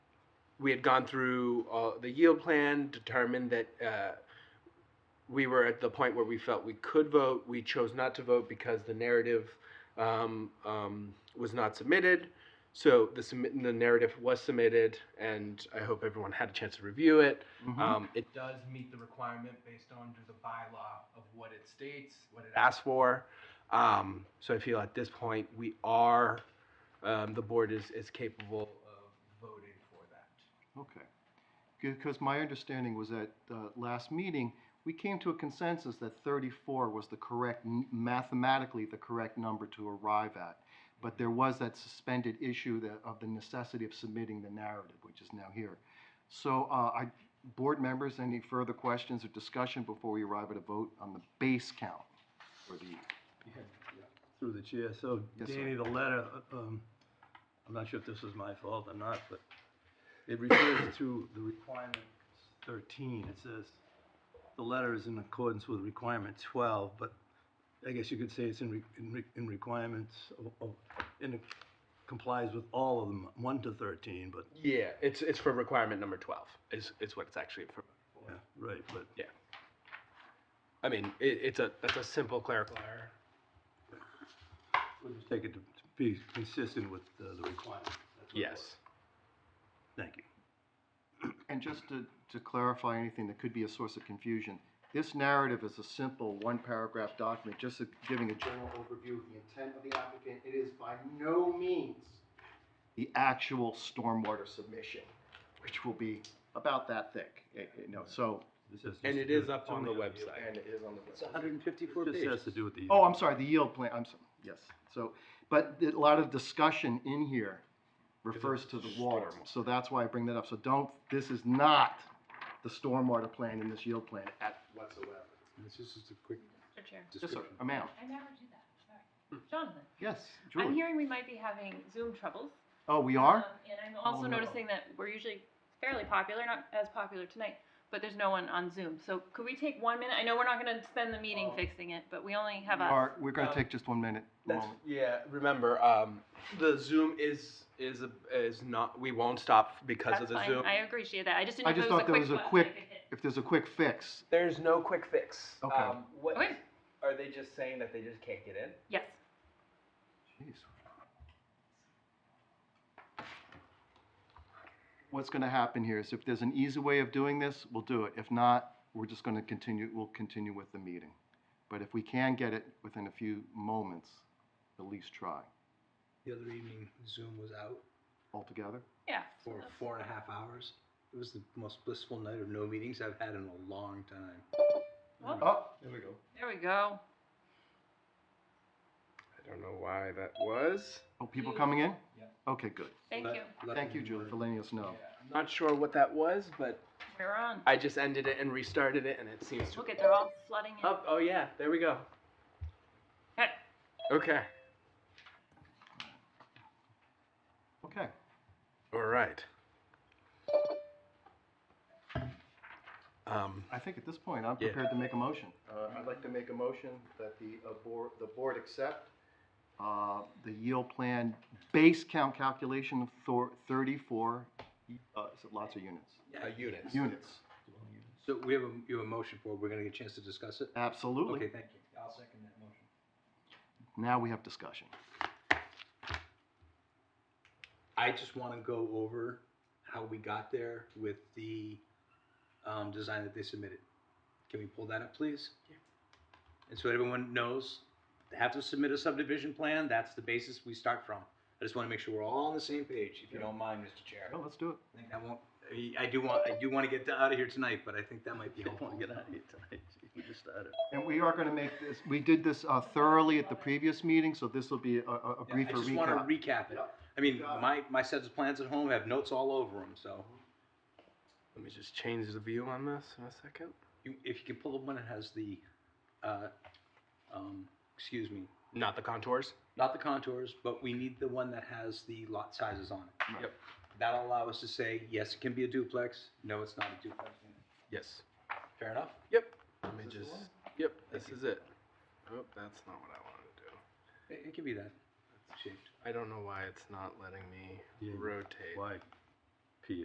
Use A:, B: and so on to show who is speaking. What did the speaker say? A: we had gone through all the yield plan, determined that uh, we were at the point where we felt we could vote. We chose not to vote because the narrative um, um, was not submitted. So the, submit- the narrative was submitted, and I hope everyone had a chance to review it.
B: Mm-hmm.
A: Um, it does meet the requirement based on the bylaw of what it states, what it asks for. Um, so I feel at this point, we are, um, the board is, is capable of voting for that.
B: Okay. Because my understanding was that uh, last meeting, we came to a consensus that 34 was the correct, n- mathematically the correct number to arrive at. But there was that suspended issue that, of the necessity of submitting the narrative, which is now here. So, uh, I, board members, any further questions or discussion before we arrive at a vote on the base count? Or the,
C: Through the chair, so
B: Yes, sir.
C: Danny, the letter, uh, um, I'm not sure if this is my fault or not, but it refers to the requirement thirteen, it says, the letter is in accordance with requirement twelve, but I guess you could say it's in re, in re, in requirements of, of, in, complies with all of them, one to thirteen, but,
A: Yeah, it's, it's for requirement number twelve, is, is what it's actually for.
C: yeah, right, but.
A: I mean, it, it's a, that's a simple clerical error.
C: We'll just take it to to be consistent with uh, the requirement. That's what it
A: Yes.
C: was. Thank you.
B: and just to, to clarify anything that could be a source of confusion, this narrative is a simple one-paragraph document, just a- giving a general overview of the intent of the applicant. It is by no means the actual stormwater submission, which will be about that thick, eh, eh, you know, so.
C: This has
A: And
C: just
A: it
C: to do
A: is
C: with
A: up on the
C: only-
A: website.
B: it is on the website.
D: hundred and fifty-four
C: This has
D: pages.
C: to do with the.
B: Oh, I'm sorry, the yield plan, I'm sorry, yes. So, but a lot of discussion in here refers to the water, so that's why I bring that up. So don't, this is not the stormwater plan in this yield plan at whatsoever.
E: This is just a quick
F: Mr. Chair,
B: Yes, sir,
E: description.
B: amount,
F: I never do that, sorry. Jonathan,
B: yes,
F: I'm
B: Hmm. Julie.
F: hearing we might be having Zoom troubles.
B: Oh, we are?
F: um, And I'm
B: Oh,
F: also
B: no.
F: noticing that we're usually fairly popular, not as popular tonight, but there's no one on Zoom. So could we take one minute? I know we're not gonna spend the meeting
B: Oh.
F: fixing it, but we only have
B: We
F: us.
B: are, we're gonna
A: Um,
B: take just one minute, a
A: That's,
B: moment.
A: yeah, remember, um, the Zoom is, is, a- is not, we won't stop because of
F: That's
A: the
F: fine,
A: Zoom.
F: I appreciate that. I just
B: I
F: didn't know
B: just
F: if it was
B: thought
F: a
B: there
F: quick.
B: was a
F: button I
B: quick-
F: could hit.
B: If there's a quick fix,
A: There's no quick fix.
B: Okay.
A: Um, what,
F: Okay.
A: are they just saying that they just can't get in?
F: Yes,
B: Jeez. What's gonna happen here is if there's an easy way of doing this, we'll do it. If not, we're just gonna continue, we'll continue with the meeting. But if we can get it within a few moments, at least try.
E: The other evening, Zoom was out
B: Altogether?
F: yeah. so
E: for
F: that's-
E: four and a half hours. It was the most blissful night of no meetings I've had in a long time.
F: well,
B: Oh, there we go.
F: There we go.
A: I don't know why that was.
B: Oh, people coming in?
E: Yeah.
B: Okay, good.
F: Thank
E: Let-
F: you.
E: let
B: Thank you,
E: them
B: Julie,
E: work.
B: for letting us know.
A: I'm not sure what that was, but
F: We're on.
A: I just ended it and restarted it, and it seems to.
F: Look at, they're all flooding in.
A: Oh, oh yeah, there we go.
F: Okay.
A: Okay.
B: Okay.
A: All right. Um,
B: I think at this point, I'm
A: Yeah.
B: prepared to make a motion. Uh, I'd like to make a motion that the uh, board, the board accept uh, the yield plan base count calculation of thor- thirty-four, uh, is it lots of units?
A: uh, units.
B: Units,
E: So we have a, you have a motion for, it. we're gonna get a chance to discuss it? Okay,
B: absolutely.
E: thank you. I'll second that motion.
B: Now we have discussion.
E: I just wanna go over how we got there with the, um, design that they submitted. Can we pull that up, please? And so everyone knows, they have to submit a subdivision plan, that's the basis we start from. I just wanna make sure we're all on the same page, if you don't mind, Mr. Chair.
B: Oh, let's do it.
E: I think I won't, I- I do want, I do wanna get out of here tonight, but I think that might be
C: Don't wanna
E: helpful.
C: get out of here tonight. We just started.
B: And we are gonna make this, we did this uh, thoroughly at the previous meeting, so this will be a- a, a
E: Yeah, I
B: briefer
E: just want to
B: recap.
E: recap it. I mean,
B: Got it.
E: my, my sets of plans at home have notes all over them, so
A: Let me just change the view on this in a second.
E: you, if you can pull up one that has the, uh, um, excuse me,
A: Not the contours.
E: not the contours, but we need the one that has the lot sizes on it.
A: Yep.
E: That'll allow us to say, yes, it can be a duplex, no, it's not a duplex.
A: Yes.
E: Fair enough?
A: Yep. Let me
E: Is this
A: just.
E: the one?
A: Yep.
E: Thank
A: This
E: you.
A: is it. Oh, that's not what I wanted to do.
E: It, it can be that shaped.
A: I don't know why it's not letting me
C: Yeah,
A: rotate.
C: Why?